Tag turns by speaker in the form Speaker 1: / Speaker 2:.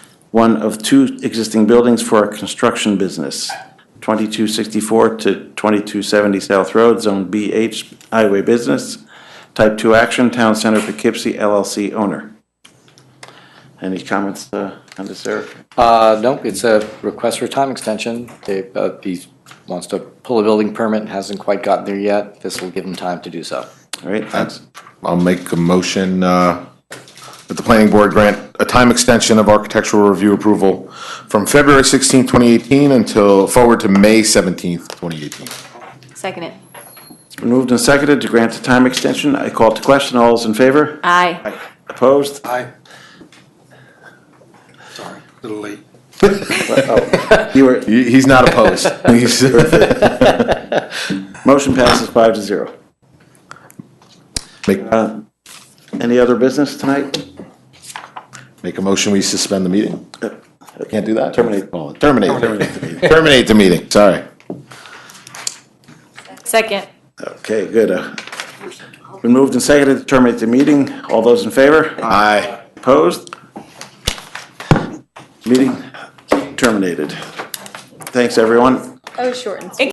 Speaker 1: one of two existing buildings for a construction business. 2264 to 2270 South Road, Zone BH, Highway Business. Type 2 action, Town Center Poughkeepsie LLC owner. Any comments uh, on this, Eric?
Speaker 2: Uh, no, it's a request for time extension. They, uh, he wants to pull a building permit and hasn't quite gotten there yet. This will give him time to do so.
Speaker 1: All right, thanks.
Speaker 3: I'll make a motion uh, that the planning board grant a time extension of architectural review approval from February 16, 2018 until, forward to May 17, 2018.
Speaker 4: Second it.
Speaker 1: Moved and seconded to grant the time extension. I call to question. All those in favor?
Speaker 4: Aye.
Speaker 1: Opposed?
Speaker 5: Aye. Sorry, a little late.
Speaker 1: You were,
Speaker 3: He- He's not opposed. He's-
Speaker 1: motion passes five to zero.
Speaker 3: Make
Speaker 1: Any other business tonight?
Speaker 3: make a motion, we suspend the meeting? Can't do that?
Speaker 1: Terminate.
Speaker 3: Terminate. Terminate the meeting, sorry.
Speaker 4: Second.
Speaker 1: Okay, good. Uh, Been moved and seconded to terminate the meeting. All those in favor?
Speaker 3: Aye.
Speaker 1: Opposed? Meeting terminated. Thanks, everyone.
Speaker 4: That was shortened.